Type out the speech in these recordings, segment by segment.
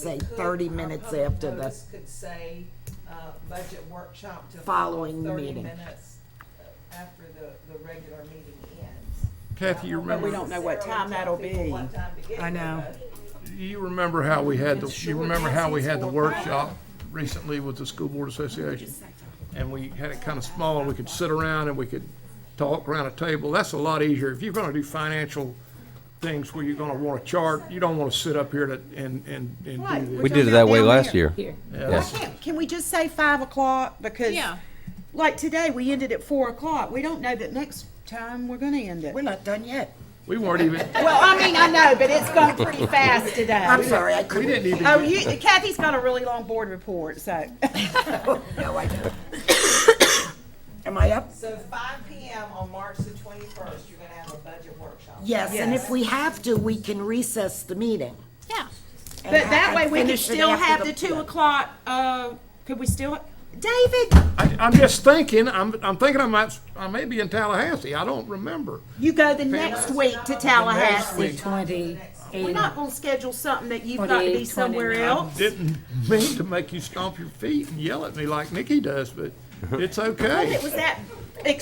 say could- 30 our minutes public after the- notice Could say, uh, budget workshop to. Following Thirty meeting. minutes uh, after the, the regular meeting ends. Kathy, you But remember, don't know what necessarily time that'll tell people be. what time to get I here, know. but- you remember how we had, the you remember how we had the workshop recently with the School Board Association? And we had it kind of small, and we could sit around and we could talk around a table. That's a lot easier. If you're gonna do financial things where you're gonna want a chart, you don't wanna sit up here to, and, and, and Right, do We we're this. talking did it that about way down last there. year. Why Yes. can't, can we just say five o'clock? Because, Yeah. like today, we ended at four o'clock. We don't know that next time we're gonna end it. We're not done yet. We weren't even, Well, I mean, I know, but it's gone pretty fast today. I'm sorry, I we couldn't, didn't even, Oh, get- you, Kathy's got a really long board report, so. no, I don't. Am I up? So five P M on March the twenty-first, you're gonna have a budget workshop. Yes, and if we have to, we can recess the meeting. Yeah. and But ha- that and way, we could finish it still after have the two o'clock, uh, could we still, David, I, I'm just thinking, I'm, I'm thinking I might, I may be in Tallahassee. I don't remember. you go the next week to Tallahassee. Twenty, We're eight, not gonna schedule something that you've got to be 28, somewhere 29. else. Didn't mean to make you stomp your feet and yell at me like Nikki does, but it's okay. It was that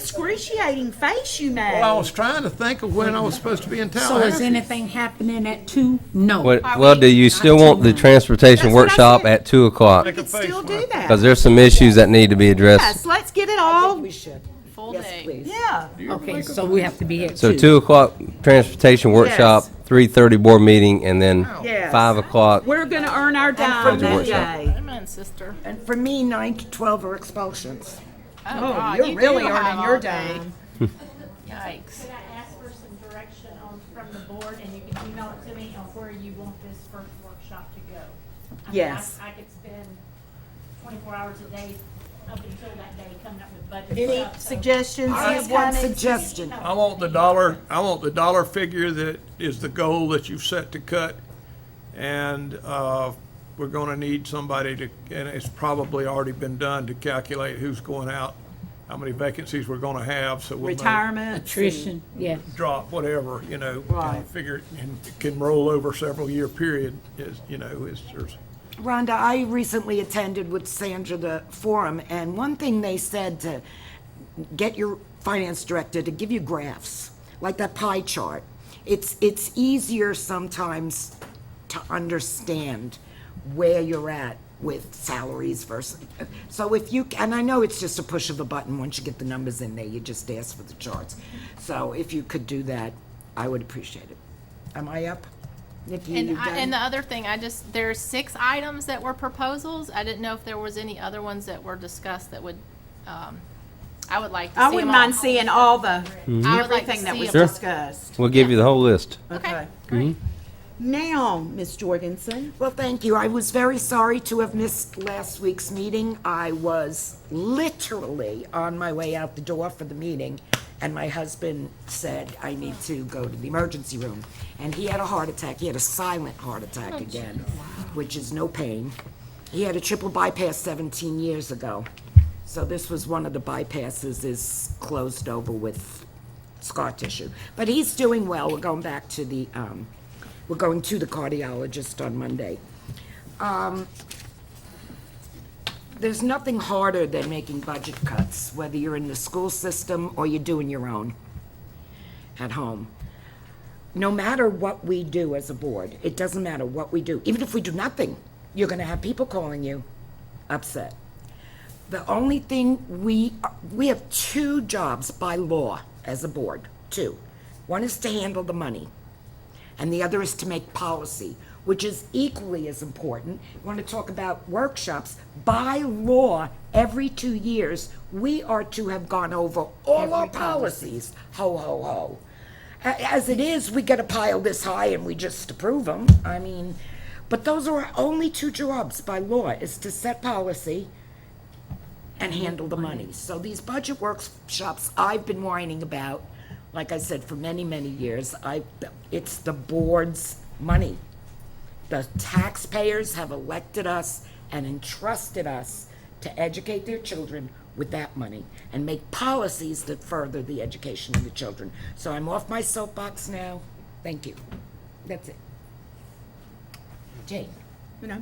excruciating face you made. Well, I was trying to think of when I was supposed to be in so is Tallahassee. anything happening at two? No. Well, well, do you still want the transportation That's what I workshop said. at two o'clock? We could still do Because that. there's some issues that need to be addressed. Yes, let's get it all, We should. Full Yes, day. please. yeah. Okay, so we have to be at So two. two o'clock transportation workshop, three thirty board meeting, and then Yes. five o'clock. We're gonna earn our dime Budget that workshop. day. Come on, sister. And for me, nine to 12 are expulsions. Oh, Oh, God, you're you do really have earning all your day. dime. Yikes. Could I ask for some direction on, from the board, and you can email it to me, on where you want this first workshop to go? I mean, I- Yes. I could spend twenty-four hours a day up until that day coming up with budget Any stuff, so- suggestions? I have one suggestion. I want the dollar, I want the dollar figure that is the goal that you've set to cut. And, uh, we're gonna need somebody to, and it's probably already been done, to calculate who's going out, how many vacancies we're gonna have, so we'll know- Retirement? Attrition, yeah. drop, whatever, you know. Right. Figure, it and it can roll over several year period, is, you know, is, there's. Rhonda, I recently attended with Sandra the forum, and one thing they said to get your finance director to give you graphs, like that pie chart. It's, it's easier sometimes to understand where you're at with salaries versus, so if you, and I know it's just a push of a button, once you get the numbers in there, you just ask for the charts. So if you could do that, I would appreciate it. Am I up? Nikki, you And, I, done? and the other thing, I just, there's six items that were proposals. I didn't know if there was any other ones that were discussed that would, um, I would like to see I wouldn't them all. mind seeing all the, I would like to everything that see was them. discussed. We'll give you the whole list. Okay, Okay. great. Now, Ms. Jorgensen, Well, thank you. I was very sorry to have missed last week's meeting. I was literally on my way out the door for the meeting, and my husband said, I need to go to the emergency room. And he had a heart attack. He had a silent heart attack again, which is no pain. He had a triple bypass 17 years ago. So this was one of the bypasses is closed over with scar tissue. But he's doing well. We're going back to the, um, we're going to the cardiologist on Monday. Um, There's nothing harder than making budget cuts, whether you're in the school system or you're doing your own at home. No matter what we do as a board, it doesn't matter what we do, even if we do nothing, you're gonna have people calling you upset. The only thing we, we have two jobs by law as a board, two. One is to handle the money, and the other is to make policy, which is equally as important. Want to talk about workshops? By law, every two years, we are to have gone over all our policies. Ho, ho, ho. A- As it is, we get a pile this high and we just approve them. I mean, but those are our only two jobs by law, is to set policy and handle the money. So these budget workshops I've been whining about, like I said, for many, many years, I, it's the board's money. The taxpayers have elected us and entrusted us to educate their children with that money and make policies that further the education of the children. So I'm off my soapbox now. Thank you. That's it. Jane?